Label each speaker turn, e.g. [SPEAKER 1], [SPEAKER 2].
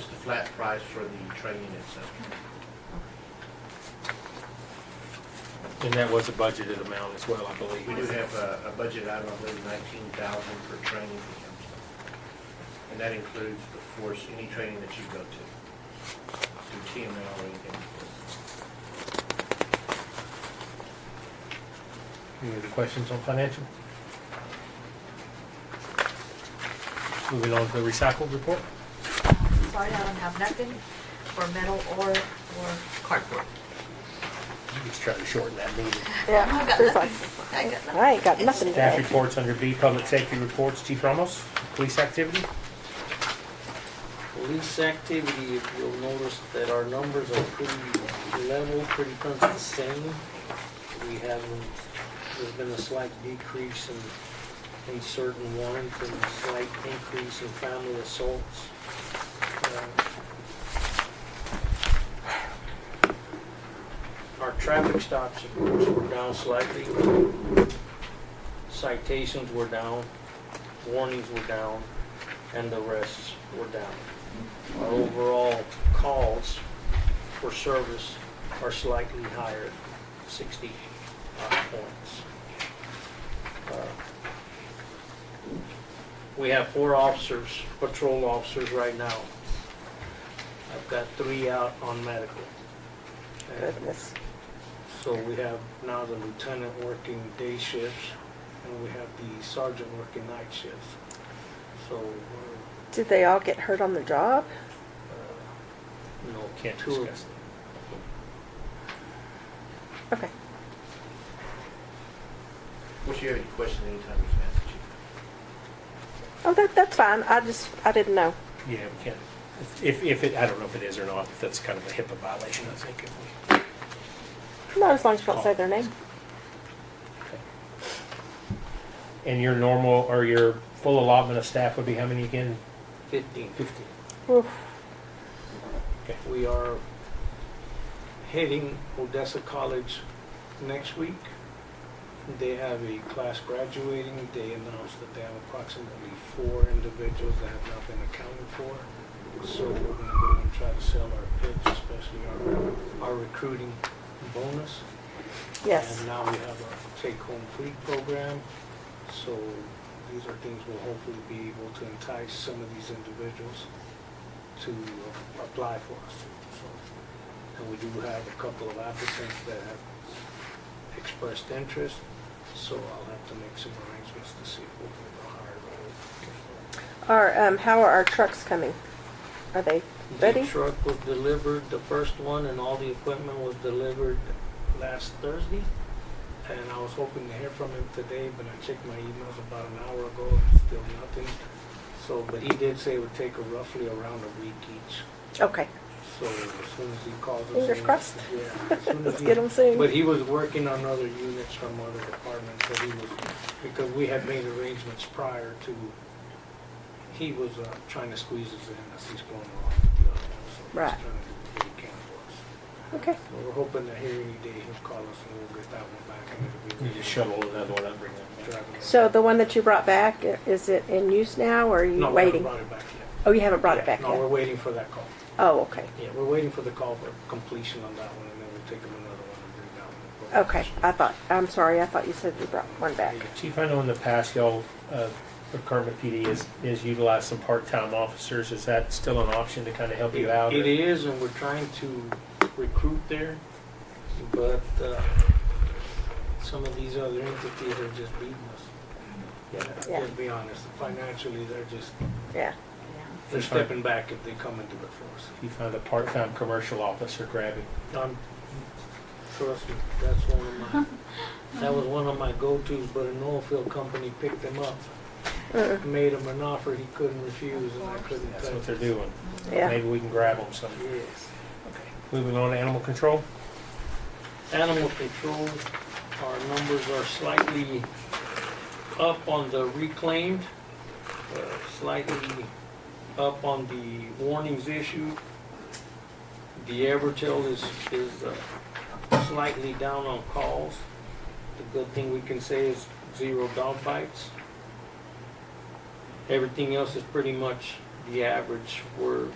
[SPEAKER 1] flat price for the training itself.
[SPEAKER 2] And that was a budgeted amount as well, I
[SPEAKER 1] We do
[SPEAKER 2] believe.
[SPEAKER 1] have a, a budget item, I believe nineteen thousand for training for council. And that includes, of course, any training that you go to, through TML or anything.
[SPEAKER 2] Any other questions on financial? Moving on to the recycle report.
[SPEAKER 3] Sorry, I don't have nothing for metal or, or cardboard.
[SPEAKER 2] Just trying to shorten that meeting.
[SPEAKER 3] I
[SPEAKER 4] Yeah,
[SPEAKER 3] got
[SPEAKER 4] it's like,
[SPEAKER 3] nothing. I got nothing.
[SPEAKER 4] I ain't got nothing
[SPEAKER 2] Staff
[SPEAKER 4] today.
[SPEAKER 2] reports under B, public safety reports, Chief Ramos, police activity.
[SPEAKER 5] Police activity, if you'll notice that our numbers are pretty level, pretty much the same. We haven't, there's been a slight decrease in, in certain warrants and a slight increase in family assaults. Uh, Our traffic stops, of course, were down slightly. Citations were down, warnings were down, and the arrests were down our overall calls for service are slightly higher, 60 uh, points. Uh, We have four officers, patrol officers right now. I've got three out on medical. And
[SPEAKER 4] Goodness.
[SPEAKER 5] So we have now the lieutenant working day shifts, and we have the sergeant working night shifts. So uh, we're
[SPEAKER 4] Did they all get hurt on the job?
[SPEAKER 5] you know,
[SPEAKER 2] Can't
[SPEAKER 5] two of-
[SPEAKER 2] discuss it.
[SPEAKER 4] Okay.
[SPEAKER 1] If you have any questions, anytime you can ask the chief.
[SPEAKER 4] Oh, that, that's fine. I just, I didn't know.
[SPEAKER 2] Yeah, we can't, if, if it, I don't know if it is or not, but that's kind of a HIPAA violation, I think. if we-
[SPEAKER 4] Not as long as you don't say their name.
[SPEAKER 2] And your normal, or your full allotment of staff would be how many again?
[SPEAKER 5] 15.
[SPEAKER 2] Fifteen.
[SPEAKER 4] Oof.
[SPEAKER 5] We are heading Odessa College next week. They have a class graduating. They announced that they have approximately four individuals that have not been accounted for. So we're going to go and try to sell our pitch, especially our, our recruiting bonus.
[SPEAKER 4] Yes.
[SPEAKER 5] And now we have our take-home free program, so these are things we'll hopefully be able to entice some of these individuals to uh, apply for us. So, And we do have a couple of applicants that have expressed interest, so I'll have to make some arrangements to see if we can go hire them.
[SPEAKER 4] Our, um, how are our trucks coming? Are they
[SPEAKER 5] The
[SPEAKER 4] ready?
[SPEAKER 5] truck was delivered, the first one, and all the equipment was delivered last Thursday. And I was hoping to hear from him today, but I checked my emails about an hour ago, and still nothing. So, but he did say it would take roughly around a week each.
[SPEAKER 4] Okay.
[SPEAKER 5] So as soon as he calls us.
[SPEAKER 4] Fingers
[SPEAKER 5] in-
[SPEAKER 4] crossed.
[SPEAKER 5] Yeah. as soon as
[SPEAKER 4] Let's
[SPEAKER 5] he-
[SPEAKER 4] get them soon.
[SPEAKER 5] But he was working on other units from other departments, so he was, because we had made arrangements prior to, he was uh, trying to squeeze us in as he's going along with the other ones. so he's
[SPEAKER 4] Right.
[SPEAKER 5] trying to do what he can for us.
[SPEAKER 4] Okay.
[SPEAKER 5] So We're hoping that here any day he'll call us and we'll get that one back and it'll be.
[SPEAKER 2] You just shuttle another one up, bring that back.
[SPEAKER 5] Driving it
[SPEAKER 4] So
[SPEAKER 5] back.
[SPEAKER 4] the one that you brought back, i- is it in use now or are you
[SPEAKER 5] No, we haven't
[SPEAKER 4] waiting?
[SPEAKER 5] brought it back yet.
[SPEAKER 4] Oh, you haven't brought it back
[SPEAKER 5] No, we're
[SPEAKER 4] yet?
[SPEAKER 5] waiting for that call.
[SPEAKER 4] Oh, okay.
[SPEAKER 5] Yeah, we're waiting for the call for completion on that one and then we'll take him another one and bring that one. back.
[SPEAKER 4] Okay. I thought, I'm sorry. I thought you said you brought one back.
[SPEAKER 2] Chief, I know in the past y'all, uh, the Kermit PD has, has utilized some part-time officers. Is that still an option to kind of help you out? or-
[SPEAKER 5] It is, and we're trying to recruit there, but uh, some of these other entities are just beating us. Yeah,
[SPEAKER 4] Yeah.
[SPEAKER 5] let's be honest, financially, they're just,
[SPEAKER 4] Yeah.
[SPEAKER 3] Yeah.
[SPEAKER 5] they're
[SPEAKER 2] That's fine.
[SPEAKER 5] stepping back if they come and do it for
[SPEAKER 2] If you find a part-time commercial officer, grab him.
[SPEAKER 5] us. Um, Trust me, that's one of my, that was one of my go-tos, but an oil field company picked them up,
[SPEAKER 4] Uh-uh.
[SPEAKER 5] made him an offer he couldn't refuse, and I couldn't
[SPEAKER 2] That's what
[SPEAKER 5] touch
[SPEAKER 2] they're
[SPEAKER 5] it.
[SPEAKER 2] doing.
[SPEAKER 4] Yeah.
[SPEAKER 2] Maybe we can grab them some.
[SPEAKER 5] Yes.
[SPEAKER 2] Moving on to animal control.
[SPEAKER 5] Animal control, our numbers are slightly up on the reclaimed, uh, slightly up on the warnings issued. The average tail is, is uh, slightly down on calls. The good thing we can say is zero dog bites. Everything else is pretty much the average. We're